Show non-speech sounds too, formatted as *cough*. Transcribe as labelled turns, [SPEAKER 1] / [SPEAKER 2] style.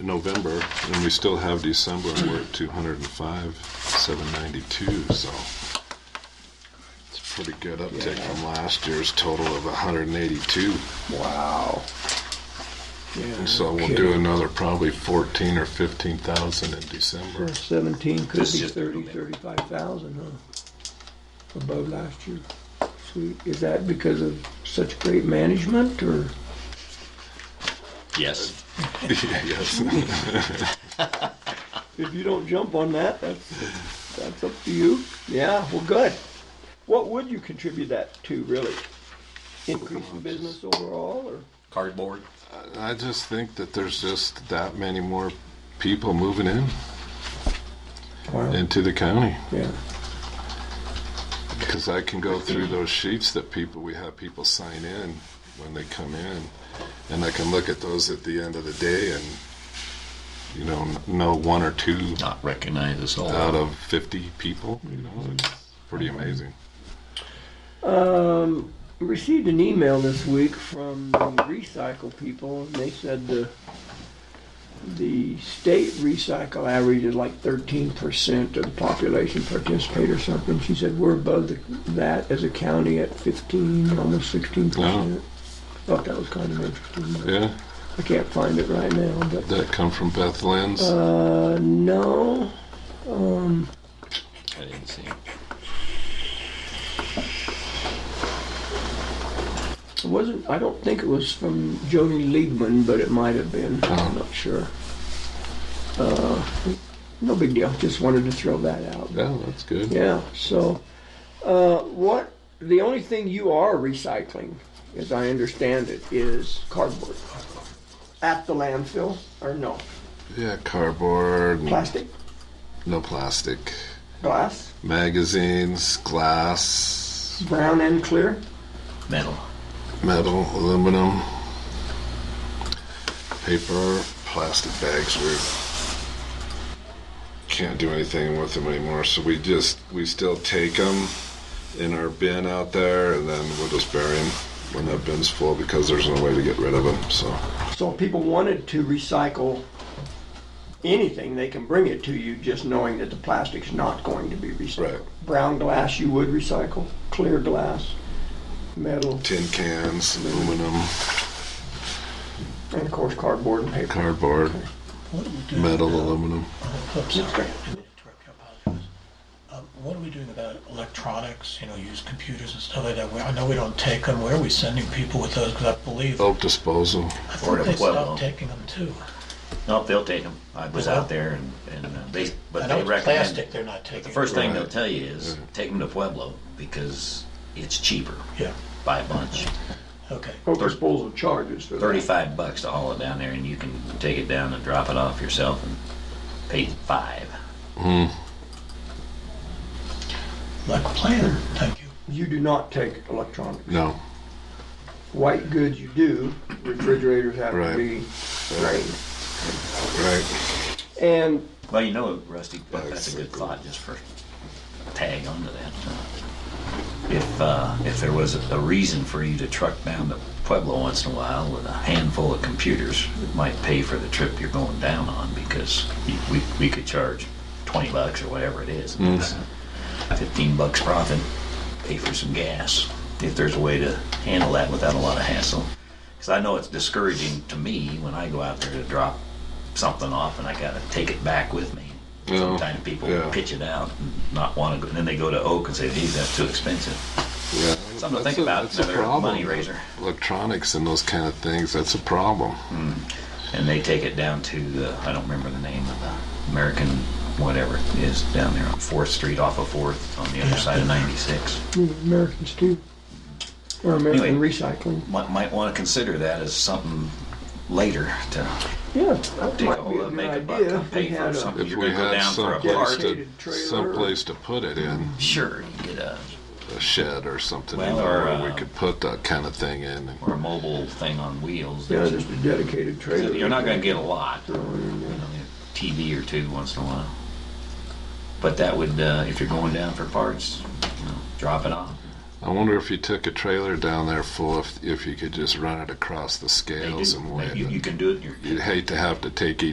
[SPEAKER 1] November, and we still have December, and we're at 205, 792, so it's a pretty good uptick
[SPEAKER 2] Yeah.
[SPEAKER 1] from last year's total of 182.
[SPEAKER 2] Wow. Yeah.
[SPEAKER 1] So we'll do another probably 14 or 15,000 in December.
[SPEAKER 2] Seventeen could
[SPEAKER 3] This is
[SPEAKER 2] be
[SPEAKER 3] just-
[SPEAKER 2] thirty, thirty-five thousand, huh? Above last year. Sweet. Is that because of such great management or?
[SPEAKER 3] Yes.
[SPEAKER 1] *laughs* Yes.
[SPEAKER 2] If you don't jump on that, that's, that's up to you. Yeah, well, good. What would you contribute that to, really? Increase in business overall, or?
[SPEAKER 3] Cardboard.
[SPEAKER 1] I just think that there's just that many more people moving in into the county.
[SPEAKER 2] Yeah,
[SPEAKER 1] Because I can go through those sheets that people, we have people sign in when they come in, and I can look at those at the end of the day and, you know, n- know one or two
[SPEAKER 3] Not recognized as all.
[SPEAKER 1] out of 50 people. You know, it's pretty amazing.
[SPEAKER 2] We received an email this week from the recycle people, and they said the, the state recycle average is like thirteen percent of the population participate or something. She said we're above the, that as a county at fifteen, almost sixteen percent. Thought that was kind of interesting. but-
[SPEAKER 1] Yeah,
[SPEAKER 2] I can't find it right now, but
[SPEAKER 1] that come from Beth Lynn's.
[SPEAKER 2] uh, no.
[SPEAKER 3] I didn't see.
[SPEAKER 2] It wasn't. I don't think it was from Joni Liebman, but it might have been. I'm not sure. Uh, no big deal. Just wanted to throw that out.
[SPEAKER 1] yeah, that's good.
[SPEAKER 2] Yeah. So, uh, what? The only thing you are recycling, as I understand it, is cardboard at the landfill, or no
[SPEAKER 1] Yeah, cardboard, and
[SPEAKER 2] plastic,
[SPEAKER 1] no plastic,
[SPEAKER 2] glass,
[SPEAKER 1] magazines, glass,
[SPEAKER 2] brown and clear.
[SPEAKER 3] Metal.
[SPEAKER 1] metal, aluminum, paper, plastic bags. We can't do anything with them anymore, so we just we still take them in our bin out there, and then we'll just bury them when that bin's full because there's no way to get rid of them. So
[SPEAKER 2] So if people wanted to recycle anything, they can bring it to you, just knowing that the plastic's not going to be recycled.
[SPEAKER 1] Right.
[SPEAKER 2] Brown glass you would recycle, clear glass, metal,
[SPEAKER 1] tin cans, aluminum,
[SPEAKER 2] and of course cardboard and paper.
[SPEAKER 1] cardboard,
[SPEAKER 4] What are we doing
[SPEAKER 1] metal,
[SPEAKER 4] about-
[SPEAKER 1] aluminum.
[SPEAKER 4] I'm sorry,
[SPEAKER 2] Okay.
[SPEAKER 4] I didn't interrupt you, I apologize. Um, What are we doing about electronics, you know, use computers and stuff like that? Where- I know we don't take them, where are we sending people with those? Because I believe, I
[SPEAKER 1] Oak disposal.
[SPEAKER 3] Or
[SPEAKER 4] think
[SPEAKER 3] at
[SPEAKER 4] they
[SPEAKER 3] Pueblo.
[SPEAKER 4] stopped taking them too.
[SPEAKER 3] Nope, they'll take them. I was out there and, and uh, they, but
[SPEAKER 4] I
[SPEAKER 3] they
[SPEAKER 4] know it's
[SPEAKER 3] recommend.
[SPEAKER 4] plastic they're not taking.
[SPEAKER 3] The first thing they'll
[SPEAKER 1] Right.
[SPEAKER 3] tell you is take them to Pueblo because it's cheaper
[SPEAKER 4] Yeah,
[SPEAKER 3] by a bunch.
[SPEAKER 4] okay.
[SPEAKER 2] Oak disposal charges for that.
[SPEAKER 3] 35 bucks to haul it down there and you can take it down and drop it off yourself and pay 5.
[SPEAKER 4] Like a plan, thank you.
[SPEAKER 2] You do not take electronic.
[SPEAKER 1] No.
[SPEAKER 2] White goods you do, refrigerators have to
[SPEAKER 1] Right.
[SPEAKER 2] be drained.
[SPEAKER 1] Right.
[SPEAKER 2] And
[SPEAKER 3] Well, you know, Rusty, that's a good thought just for tag onto that. If uh, if there was a reason for you to truck down to Pueblo once in a while with a handful of computers, it might pay for the trip you're going down on because you- we, we could charge 20 bucks or whatever it is. It's 15 bucks profit, pay for some gas. If there's a way to handle that without a lot of hassle. Because I know it's discouraging to me when I go out there to drop something off and I got to take it back with me.
[SPEAKER 1] Yeah.
[SPEAKER 3] Sometimes people
[SPEAKER 1] Yeah.
[SPEAKER 3] pitch it out and not want to go. And then they go to Oak and say, geez, that's too expensive.
[SPEAKER 1] Yeah.
[SPEAKER 3] Something
[SPEAKER 1] That's
[SPEAKER 3] to think
[SPEAKER 1] a-
[SPEAKER 3] about.
[SPEAKER 1] that's a
[SPEAKER 3] Another
[SPEAKER 1] problem.
[SPEAKER 3] money raiser.
[SPEAKER 1] Electronics and those kind of things, that's a problem.
[SPEAKER 3] And they take it down to the, I don't remember the name of the American whatever it is down there on 4th Street off of 4th on the other side of 96.
[SPEAKER 2] Americans too, or American
[SPEAKER 3] Anyway.
[SPEAKER 2] recycling.
[SPEAKER 3] Might, might want to consider that as something later to
[SPEAKER 2] Yeah, that
[SPEAKER 3] take a
[SPEAKER 2] might be
[SPEAKER 3] hold
[SPEAKER 2] a
[SPEAKER 3] of,
[SPEAKER 2] good
[SPEAKER 3] make a buck,
[SPEAKER 2] idea.
[SPEAKER 3] and pay
[SPEAKER 2] We
[SPEAKER 3] for
[SPEAKER 2] had a-
[SPEAKER 3] something.
[SPEAKER 1] If
[SPEAKER 3] You're
[SPEAKER 1] we
[SPEAKER 3] going to go
[SPEAKER 1] down
[SPEAKER 3] down for a
[SPEAKER 1] someplace
[SPEAKER 3] part.
[SPEAKER 1] to,
[SPEAKER 2] Dedicated trailer.
[SPEAKER 1] someplace to put it in,
[SPEAKER 3] Sure, you get a,
[SPEAKER 1] a shed or something, you
[SPEAKER 3] Well,
[SPEAKER 1] know,
[SPEAKER 3] or,
[SPEAKER 1] where we
[SPEAKER 3] uh,
[SPEAKER 1] could put that kind of thing in.
[SPEAKER 3] or a mobile thing on wheels.
[SPEAKER 2] Yeah,
[SPEAKER 3] that-
[SPEAKER 2] just a dedicated trailer.
[SPEAKER 3] You're not going to get a lot. TV or two once in a while. But that would, uh, if you're going down for parts, you know, drop it off.
[SPEAKER 1] I wonder if you took a trailer down there full, if, if you could just run it across the
[SPEAKER 3] They
[SPEAKER 1] scales
[SPEAKER 3] do.
[SPEAKER 1] and weigh
[SPEAKER 3] You, you
[SPEAKER 1] it.
[SPEAKER 3] can do it. in your
[SPEAKER 1] You'd hate to have to take